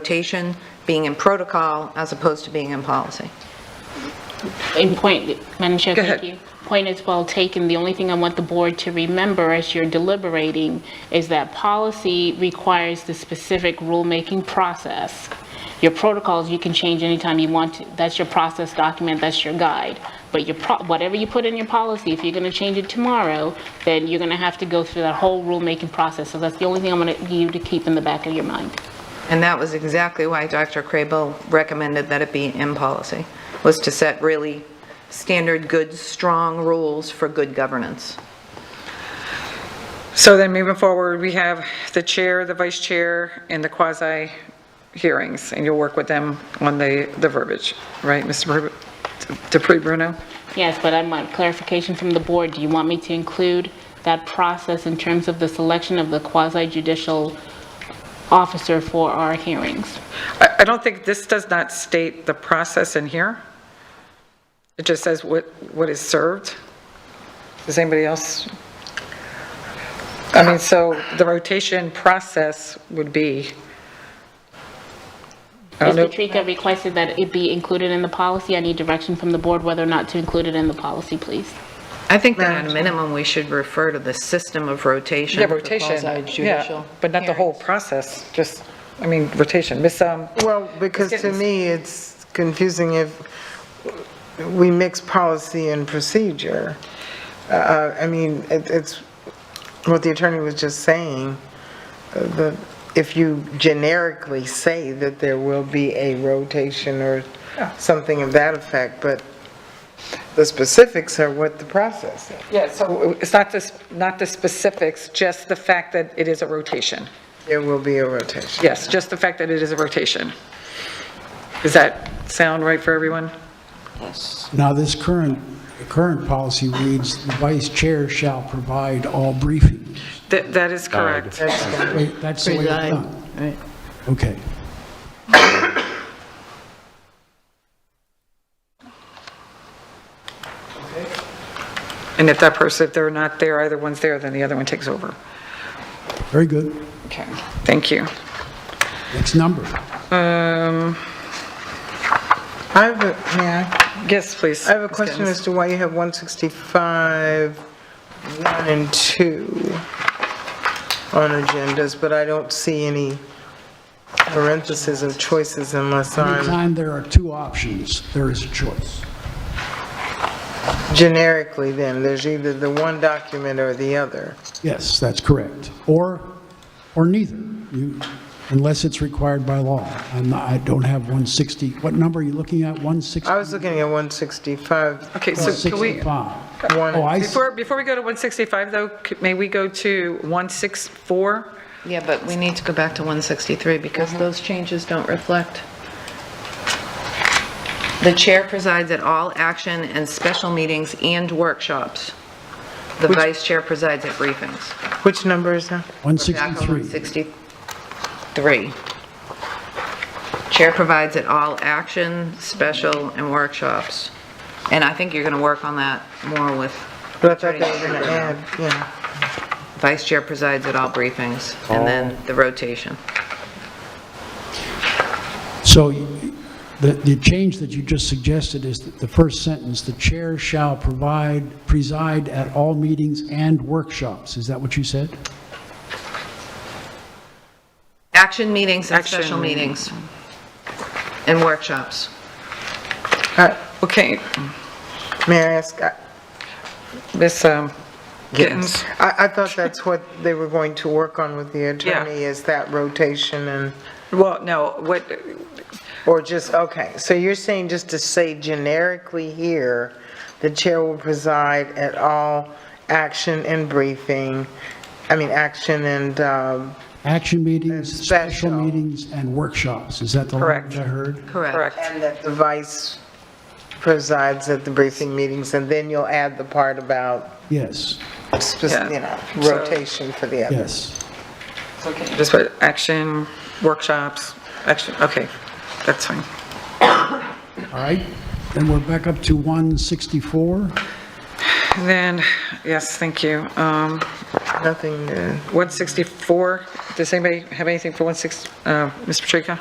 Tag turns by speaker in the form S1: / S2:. S1: rotation being in protocol as opposed to being in policy.
S2: In point, Madam Chair,
S1: Go
S2: thank
S1: ahead.
S2: you. Point is well taken. The only thing I want the board to remember as you're deliberating is that policy requires the specific rulemaking process. Your protocols, you can change anytime you want to. That's your process document, that's your guide. But your, pro- whatever you put in your policy, if you're going to change it tomorrow, then you're going to have to go through that whole rulemaking process. So that's the only thing I want you to keep in the back of your mind.
S1: And that was exactly why Dr. Crable recommended that it be in policy, was to set really standard, good, strong rules for good governance.
S3: So then moving forward, we have the chair, the vice chair, and the quasi hearings, and you'll work with them on the, the verbiage, right, Mr. Bru- Dupree Bruno?
S2: Yes, but I want clarification from the board. Do you want me to include that process in terms of the selection of the quasi judicial officer for our hearings?
S3: I, I don't think, this does not state the process in here. It just says what, what is served. Does anybody else? I mean, so the rotation process would be, I
S2: Ms.
S3: don't know.
S2: Patrika requested that it be included in the policy. I need direction from the board whether or not to include it in the policy, please.
S1: I think that at a minimum, we should refer to the system of rotation.
S3: Yeah,
S1: for
S3: rotation, yeah,
S1: quasi-judicial
S3: but not the whole
S1: hearings.
S3: process, just, I mean, rotation, Miss, um,
S4: Well, because to me, it's confusing if we mix policy and procedure. Uh, I mean, it- it's what the attorney was just saying, uh, that if you generically say that there will be a rotation or something of that effect, but the specifics are what the process is.
S3: Yeah, so it's not the, not the specifics, just the fact that it is a rotation.
S4: There will be a rotation.
S3: Yes, just the fact that it is a rotation. Does that sound right for everyone?
S5: Now, this current, current policy reads, "The vice chair shall provide all briefings."
S3: That, that is correct.
S5: Wait, That's the way it's done. Okay.
S3: And if that person, if they're not there, either one's there, then the other one takes over.
S5: Very good.
S3: Okay, thank you.
S5: Next number.
S4: I have a, may I?
S3: Yes, please.
S4: I have a question as to why you have 165, 1 and 2 on agendas, but I don't see any parentheses of choices unless I'm
S5: Anytime there are two options, there is a choice.
S4: generically then, there's either the one document or the other.
S5: Yes, that's correct. Or, or neither, You- unless it's required by law. I'm not- I don't have 160, what number are you looking at? 160?
S4: I was looking at 165.
S3: Okay, so can we,
S5: 165.
S4: One-
S5: Oh, I see.
S3: before, before we go to 165 though, c- may we go to 164?
S1: Yeah, but we need to go back to 163 because those changes don't reflect. The chair presides at all action and special meetings and workshops. The vice chair presides at briefings.
S4: Which number is that?
S1: Back on
S5: 163.
S1: 163. Chair provides at all action, special, and workshops. And I think you're going to work on that more with
S4: But I thought they were going to add, yeah.
S1: vice chair presides at all briefings, and then the rotation.
S5: So you- the, the change that you just suggested is that the first sentence, "The chair shall provide, preside at all meetings and workshops." Is that what you said?
S1: Action meetings and special
S3: Action.
S1: meetings and workshops.
S4: I-
S3: Okay,
S4: Uh, May I ask, I-
S3: Miss um, Gittens?
S4: I, I thought that's what they were going to work on with the
S3: Yeah.
S4: attorney, is that rotation and...
S3: Well, no, what,
S4: Or just, okay, so you're saying just to say generically here, the chair will preside at all action and briefing, I mean, action and, um,
S5: Action meetings,
S4: And
S5: special
S4: special.
S5: meetings, and workshops. Is that the language I
S3: Correct.
S5: heard?
S1: Correct.
S3: correct.
S4: and that the vice presides at the briefing meetings, and then you'll add the part about,
S5: Yes,
S4: spec- you know,
S3: So-
S4: rotation for the other.
S5: yes.
S3: Just put action, workshops, action, okay, that's fine.
S5: All right, then we're back up to 164.
S3: And Then, yes, thank you. Um,
S4: nothing to.
S3: 164, does anybody have anything for 160, uh, Ms. Patrica?